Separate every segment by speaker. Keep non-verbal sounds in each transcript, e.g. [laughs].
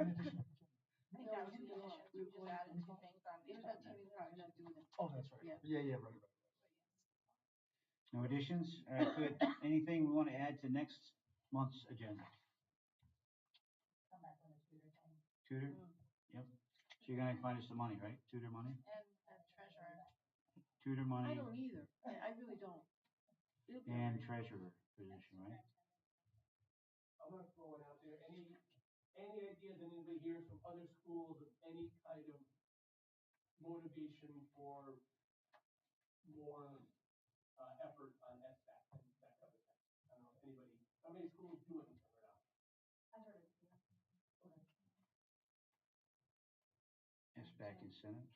Speaker 1: I think that was the addition, we just added two things on the agenda, we probably should do them.
Speaker 2: Oh, that's right.
Speaker 1: Yeah.
Speaker 2: Yeah, yeah, right.
Speaker 3: No additions? All right, good. Anything we want to add to next month's agenda?
Speaker 1: Come back on the Twitter thing.
Speaker 3: Tutor? Yep. So you're gonna find us some money, right? Tutor money?
Speaker 1: And a treasurer.
Speaker 3: Tutor
Speaker 4: I
Speaker 3: money
Speaker 4: don't either. I, I really don't. It'll be
Speaker 3: and
Speaker 4: alright.
Speaker 3: treasurer position, right?
Speaker 5: I'm gonna throw it out there, any, any ideas that anybody hears from other schools of any kind of motivation for more, uh, effort on SBAC and that kind of thing? I don't know if anybody, how many schools do it or not?
Speaker 3: It's back in Senate.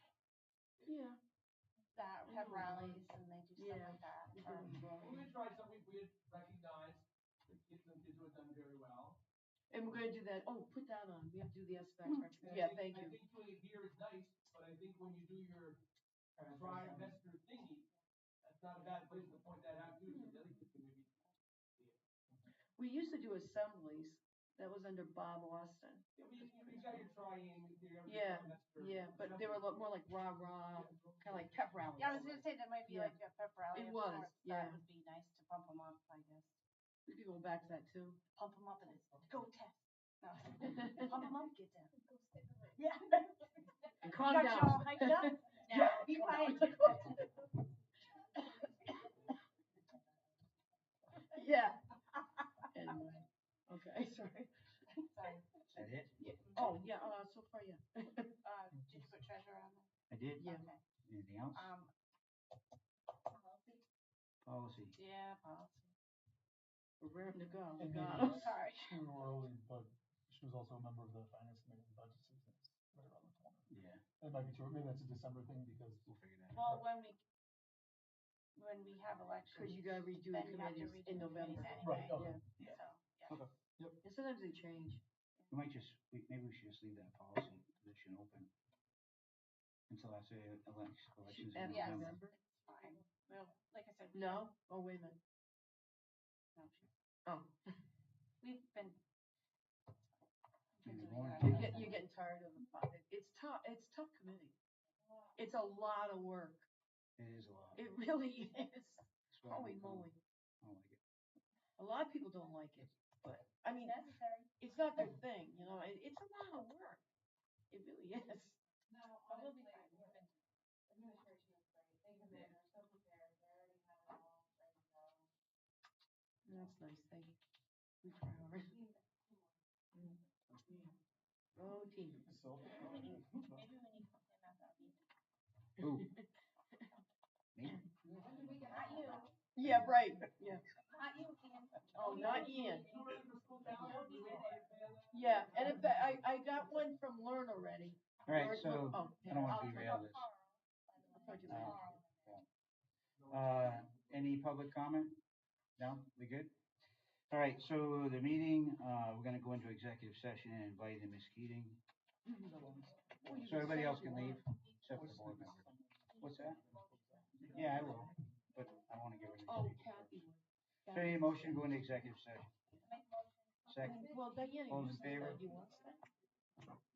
Speaker 4: Yeah.
Speaker 1: That have
Speaker 4: Mm-hmm.
Speaker 1: rallies and they do stuff like
Speaker 4: we
Speaker 1: that. um, or-
Speaker 4: can
Speaker 5: Well,
Speaker 4: borrow.
Speaker 5: we tried something we had recognized, the kids, the kids who had done very well.
Speaker 4: And we're gonna do that. Oh, put that on. We have to do the SBAC
Speaker 1: Mm-hmm.
Speaker 5: And
Speaker 4: breakfast.
Speaker 5: I
Speaker 4: Yeah,
Speaker 5: think-
Speaker 4: thank
Speaker 5: I
Speaker 4: you.
Speaker 5: think doing it here is nice, but I think when you do your dry investor thingy, that's not a bad place to point that out too,
Speaker 4: Mm-hmm.
Speaker 5: because I think it's gonna be
Speaker 4: We used to do assemblies. That was under Bob Austin.
Speaker 5: Yeah, but you, you got your triangle theory. everything,
Speaker 4: Yeah,
Speaker 5: that's true.
Speaker 4: Yeah, but they were a lot more like rah rah, kind of
Speaker 5: [laughs]
Speaker 4: like pep rallies.
Speaker 1: Yeah, I was gonna say that might be
Speaker 4: Yeah.
Speaker 1: like a pep rally
Speaker 4: It
Speaker 1: of
Speaker 4: was,
Speaker 1: sorts.
Speaker 4: yeah.
Speaker 1: That would be nice to pump them up, I guess.
Speaker 4: We could go back to that
Speaker 1: [laughs]
Speaker 4: too.
Speaker 1: Pump them up and it's go test. No, [laughs] pump them up, get down. Yeah.
Speaker 4: Calm
Speaker 1: Got you
Speaker 4: down.
Speaker 1: all hyped up. Now, be
Speaker 4: [laughs]
Speaker 1: quiet.
Speaker 4: Yeah. Anyway. Okay, [laughs] sorry.
Speaker 1: Sorry.
Speaker 3: Is that it?
Speaker 4: Oh, yeah, uh, so far, yeah.
Speaker 1: Uh, did you put treasure on there?
Speaker 3: I did?
Speaker 4: Yeah.
Speaker 1: Okay.
Speaker 3: Anything else?
Speaker 1: Um,
Speaker 3: Policy.
Speaker 1: yeah, policy.
Speaker 4: We're raring to go.
Speaker 2: And
Speaker 4: God.
Speaker 2: maybe-
Speaker 1: Sorry.
Speaker 2: She were only, but she was also a member of the finance committee and budget season, is right around the corner.
Speaker 3: Yeah,
Speaker 2: That might be true, maybe that's a December thing because
Speaker 3: we'll figure that out.
Speaker 1: Well, when we, when we have elections.
Speaker 4: Cause you gotta redo
Speaker 1: then
Speaker 4: the
Speaker 1: you have to
Speaker 4: committees
Speaker 1: redo
Speaker 4: in
Speaker 1: the committees
Speaker 4: November.
Speaker 2: Right,
Speaker 1: anyway,
Speaker 2: okay.
Speaker 1: So,
Speaker 3: Yeah.
Speaker 1: yeah.
Speaker 4: And sometimes they change.
Speaker 3: We might just, we, maybe we should just leave that policy position open until after elections,
Speaker 4: Oh,
Speaker 3: elections in
Speaker 4: After
Speaker 1: yes.
Speaker 3: November.
Speaker 4: November?
Speaker 1: Fine. Well, like I said, we-
Speaker 4: No? Oh, wait a minute. Oh,
Speaker 1: no, we've been.
Speaker 3: Maybe
Speaker 1: been doing
Speaker 3: more.
Speaker 1: that.
Speaker 4: you're getting, you're getting tired of the, pro- it- it's tough, it's tough committing. It's a lot of work.
Speaker 3: It is a lot.
Speaker 4: It [laughs] really is.
Speaker 3: It's what I
Speaker 4: Holy
Speaker 3: don't know.
Speaker 4: moly.
Speaker 3: I don't like it.
Speaker 4: A lot of people don't like it, but, I mean,
Speaker 1: Necessary.
Speaker 4: it's not their thing, you know, it, it's a lot of work. It really is.
Speaker 1: No, honestly, we've been. Administration is great. They come
Speaker 3: in,
Speaker 1: they're so prepared, they already have it all ready
Speaker 4: That's nice,
Speaker 1: to go.
Speaker 4: thank you. We try hard. Mm. Oh, team.
Speaker 1: Maybe
Speaker 2: so.
Speaker 1: we need something about that meeting.
Speaker 3: Ooh. Me?
Speaker 1: Not you,
Speaker 4: Yeah, right, yeah.
Speaker 1: not you, Ian.
Speaker 4: Oh, not Ian.
Speaker 5: You know, if the school calendar, we don't have to plan that.
Speaker 4: Yeah, and if that, I, I got one from Learn already.
Speaker 3: All right,
Speaker 4: Learn-
Speaker 3: so
Speaker 4: oh,
Speaker 3: I don't
Speaker 4: I'll-
Speaker 3: want to derail this.
Speaker 4: I'll do
Speaker 3: Uh,
Speaker 4: that.
Speaker 3: Uh, any public comment? No, we good? All right, so the meeting, uh, we're gonna go into executive session and invite in Ms. Keating,
Speaker 4: Well, Oh, you
Speaker 3: so everybody
Speaker 4: say
Speaker 3: else
Speaker 4: you
Speaker 3: can
Speaker 4: want.
Speaker 3: leave, except for the board member. What's that? Yeah, I will, but I wanna get rid of
Speaker 4: Oh,
Speaker 3: it.
Speaker 4: Kathy.
Speaker 3: So any motion to go into executive session? Second,
Speaker 4: Well, Diana,
Speaker 3: All
Speaker 4: you
Speaker 3: in
Speaker 4: said that
Speaker 3: favor?
Speaker 4: you want that.